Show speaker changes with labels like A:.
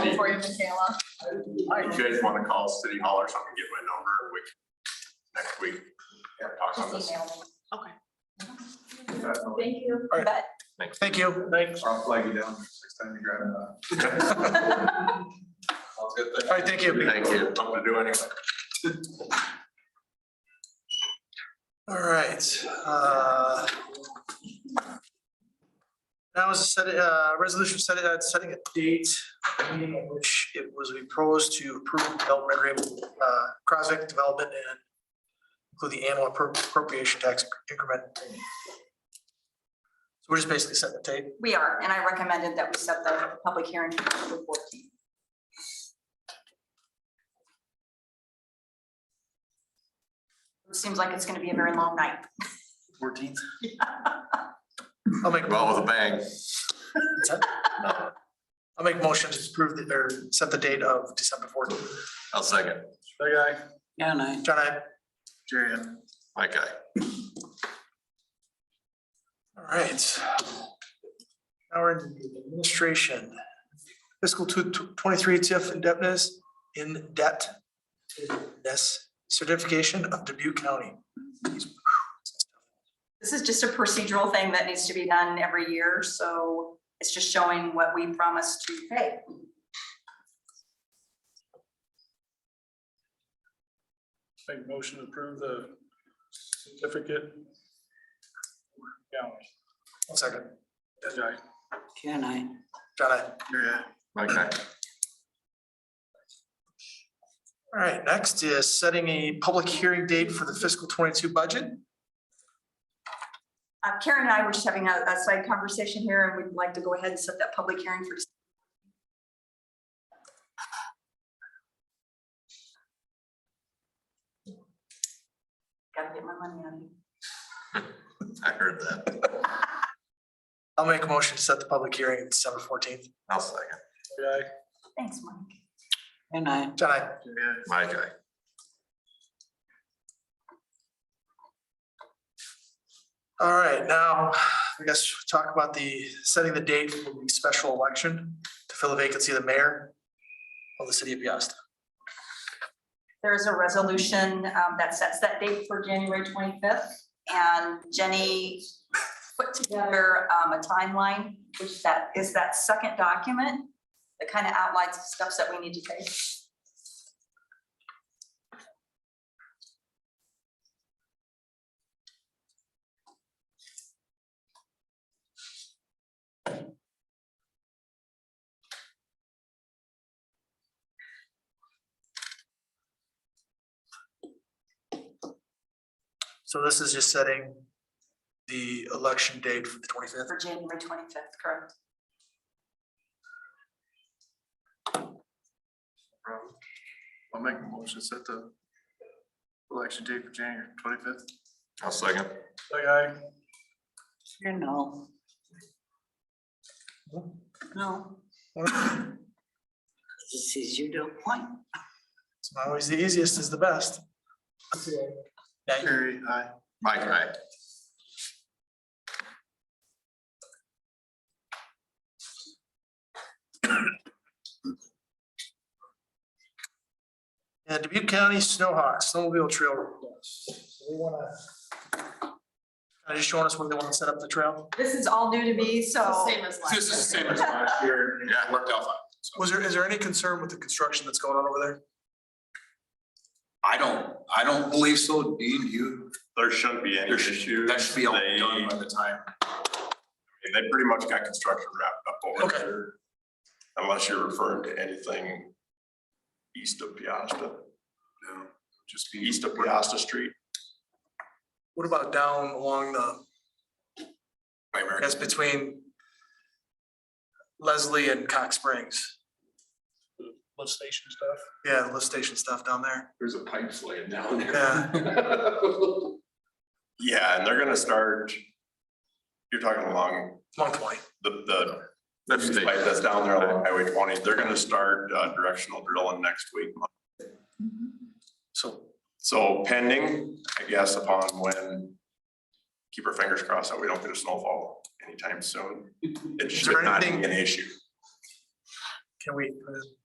A: for you, Michaela.
B: If you guys want to call City Hall or something, get my number and we can, next week, talk on
A: Just
B: this.
A: email me.
B: Definitely.
A: Thank you.
C: All right.
A: But-
C: Thank you. Thanks.
B: I'll flag you down next time you grab it. Sounds good.
C: All right, thank you.
B: Thank you. Something to do anyway.
C: All right. uh, Now is a set, uh, resolution set, uh, setting a date, meeting in which it was proposed to approve development agreement, uh, Crosvic development and include the annual appro- appropriation tax increment. So we're just basically setting the date.
A: We are, and I recommended that we set the public hearing for October 14th. It Seems like it's gonna be a very long night.
C: Fourteenth. I'll make,
B: Well, with a bang.
C: I'll make motion to approve the, or set the date of December fourteenth.
B: I'll second.
C: Big eye.
D: Yeah, and I,
C: John, I.
E: Jerry,
B: My guy.
C: All right. Now we're in the administration. Fiscal two tw- twenty-three TIF indebtedness in debt. This certification of Dubuque County.
A: This is just a procedural thing that needs to be done every year, so it's just showing what we promised to pay.
E: make motion to approve the certificate. County.
C: One second.
E: That's right.
D: can I?
C: John, I.
E: Yeah.
B: My guy.
C: All right, next is setting a public hearing date for the fiscal twenty-two budget.
A: Uh, Karen and I were just having a, a side conversation here, and we'd like to go ahead and set that public hearing for. Gotta get my money out of you.
B: I heard that.
C: I'll make a motion to set the public hearing at December fourteenth.
B: I'll second.
E: Yeah.
A: Thanks, Mike.
D: Can I?
C: John, I.
B: My guy.
C: All right, now, I guess we'll talk about the, setting the date for the special election to fill the vacancy of the mayor of the city of Piasta.
A: There is a resolution um, that sets that date for January twenty-fifth, and Jenny put together um, a timeline, which that is that second document that kind of outlines the steps that we need to take.
C: So this is just setting the election date for the twenty-fifth.
A: For January twenty-fifth, correct?
E: I'll make a motion, to set the election date for January twenty-fifth.
B: I'll second.
E: Aye.
D: Sure, no. No. This is you to a point.
C: It's not always the easiest is the best.
E: aye. Jerry, aye.
B: My guy.
C: And Dubuque County Snowhawk Snowmobile Trail. We wanna. Are you showing us where they wanna set up the trail?
A: This is all new to me, so.
F: as
E: This is the same as last year.
B: Yeah.
E: Worked out fine.
C: Was there, is there any concern with the construction that's going on over there?
G: I don't, I don't believe so, Dean, you,
B: There shouldn't be any
G: There should-
B: issues.
G: that should be all
B: They-
G: done by the time.
B: And they pretty much got construction wrapped up over
C: Okay.
B: there. Unless you're referring to anything east of Piasta,
G: No, Just be.
B: east of Piasta Street.
C: What about down along the,
G: By America.
C: that's between Leslie and Cox Springs?
E: Lift station stuff.
C: Yeah, the lift station stuff down there.
G: There's a pipe laying down
C: Yeah.
B: Yeah, and they're gonna start, you're talking along
C: Long Point.
B: the, the pipe that's down there along Highway twenty, they're gonna start uh, directional drilling next week.
C: So
B: So pending, I guess, upon when, keep our fingers crossed that we don't get a snowfall anytime soon. It should
C: there
B: not be
C: anything-
B: an issue.
C: can we, uh,